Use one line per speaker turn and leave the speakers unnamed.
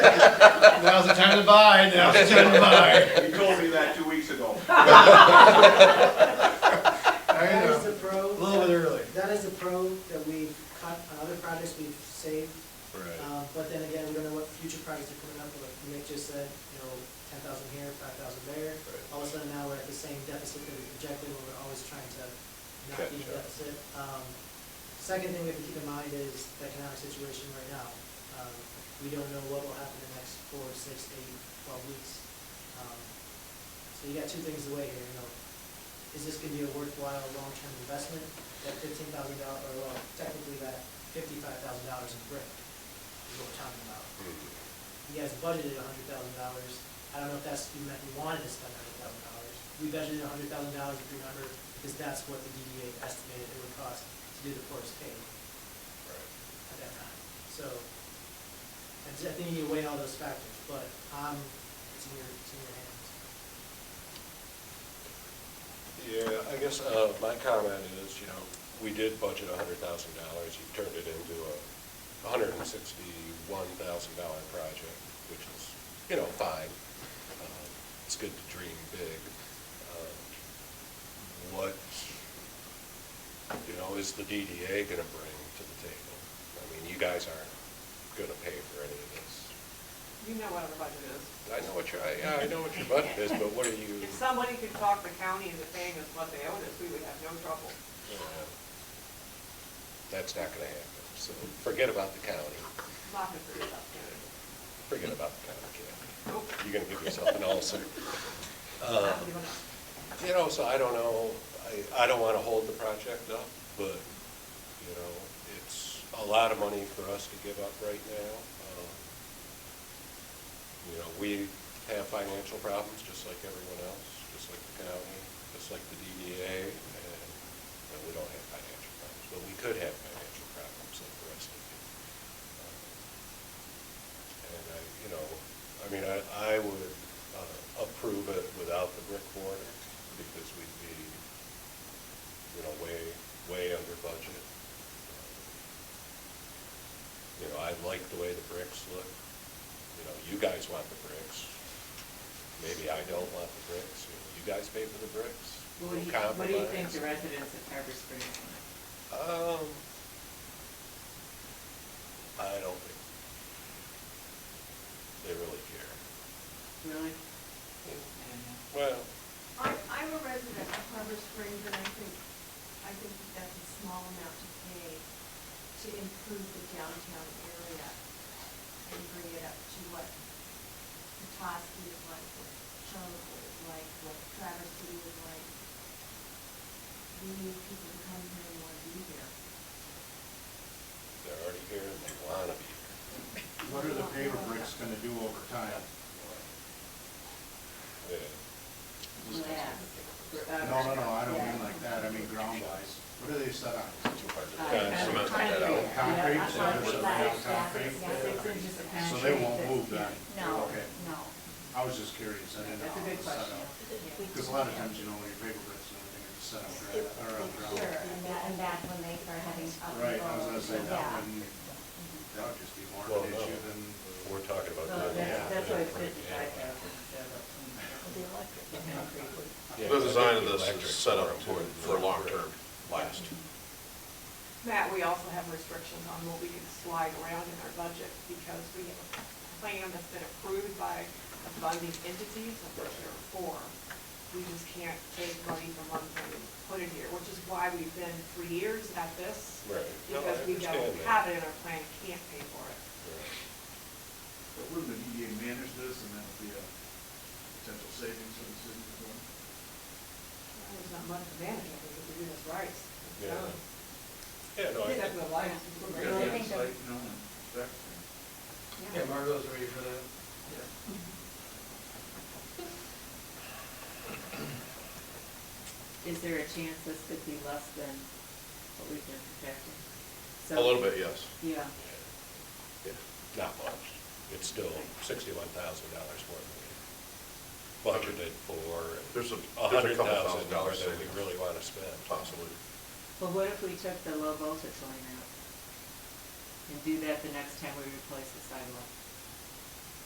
Now's the time to buy, now's the time to buy.
You told me that two weeks ago.
I
That is the
know,
pro.
a little bit early.
That is the pro that we've cut, on other projects we've saved. Uh, But then again, we don't know what future projects are coming up with. Nick just said, you know, ten thousand here, five thousand there.
Right.
All of a sudden now we're at the same deficit that we projected, where we're always trying to not be in
Catch up.
deficit. Um, Second thing we have to keep in mind is the economic situation right now. Um, We don't know what will happen in the next four, six, eight, twelve weeks. Um, So you got two things to weigh here, you know. Is this gonna be a worthwhile long-term investment? That fifteen thousand dollar, or well, technically that fifty-five thousand dollars in brick is what we're talking about. You guys budgeted a hundred thousand dollars. I don't know if that's, you meant you wanted to spend a hundred thousand dollars. We budgeted a hundred thousand dollars, if you remember, because that's what the DDA estimated it would cost to do the forest pay at that time. So, I just- I think you need to weigh all those factors, but, um, it's in your, it's in your hands.
Yeah, I guess, uh, my comment is, you know, we did budget a hundred thousand dollars, you turned it into a hundred and sixty-one thousand dollar project, which is, you know, fine. Um, It's good to dream big. Um, What, you know, is the DDA gonna bring to the table? I mean, you guys aren't gonna pay for any of this.
You know what our budget is.
I know what your, I- yeah, I know what your budget is, but what are you?
If somebody could talk the county into paying us what they owed us, we would have no trouble.
Yeah. That's not gonna happen, so forget about the county,
Not gonna figure it out.
forget about the county, Ken.
Nope.
You're gonna give yourself an ulcer. Uh,
Not gonna do enough.
You know, so I don't know, I, I don't wanna hold the project up, but, you know, it's a lot of money for us to give up right now. Um, You know, we have financial problems, just like everyone else, just like the county, just like the DDA, and, you know, we don't have financial problems, but we could have financial problems like the rest of you. Um, And I, you know, I mean, I, I would uh, approve it without the brick border, because we'd be, you know, way, way under budget. Uh, You know, I like the way the bricks look, you know, you guys want the bricks, maybe I don't want the bricks, you know, you guys pay for the bricks.
What do you,
We'll
what do you think the
compromise.
residents of Harbor Springs want?
Um, I don't think they really care.
Really? I don't know.
Well,
I'm, I'm a resident of Harbor Springs, and I think, I think that that's a small amount to pay to improve the downtown area and bring it up to what Petoskey is like, what Charlottesville is like, what Traverse City is like. We need people to come here and want to be here.
they're already here and they wanna be here.
What are the paper bricks gonna do over time?
Yeah,
Glass.
No, no, no, I don't mean like that, I mean ground wise. What do they set on?
too hard to-
Uh,
Yeah,
kind
cement
of
that
Concrete,
out.
concrete. Yeah,
so
I
there's
thought
no
glass,
concrete.
yeah, it's in just a
So
concrete
they won't
that's-
move then?
No,
Okay. uh,
no.
I was just curious, I didn't know.
That's a good question. Yeah.
Because a lot of times, uh, you know, your paper bricks and everything are set on
Sure,
ground, or on ground.
and that, and that when they are having up.
Right, I was gonna say that
Yeah.
wouldn't, that would just be more
Well,
of an
no.
issue than,
We're talking about.
So
doing
that's,
that.
that's why it's
Oh, Yeah.
fifty-five thousand instead of twenty-five. The concrete.
Yeah,
The
I
design of
think
this
electric
is set up
more
for,
important
for
than
long-term last.
Matt, we also have restrictions on what we can slide around in our budget because we have a plan that's been approved by the funding entities, of which there are four. We just can't take money from one thing and put it here, which is why we've been three years at this.
Right. No, I
Because we don't
understand that.
have it in our plan, can't pay for it.
But wouldn't the DDA manage this and that would be a potential savings for the city as well?
There's not much advantage of it if we do this right. It's
Yeah.
done.
Yeah, no, I
We
think,
have the lights.
We
Yeah, I
gotta
think
get
that-
site, you know, and that thing.
Yeah, Margot's ready for that.
Is there a chance this could be less than what we've been projecting?
A
So-
little bit, yes.
Yeah,
yeah, not much. It's still sixty-one thousand dollars more than we budgeted for. and
There's a-
A
there's a
hundred
couple
thousand dollars
thousand dollars
that we
savings.
really wanna spend.
Possibly.
but what if we took the low voltage line out? And do that the next time we replace the sidewalk?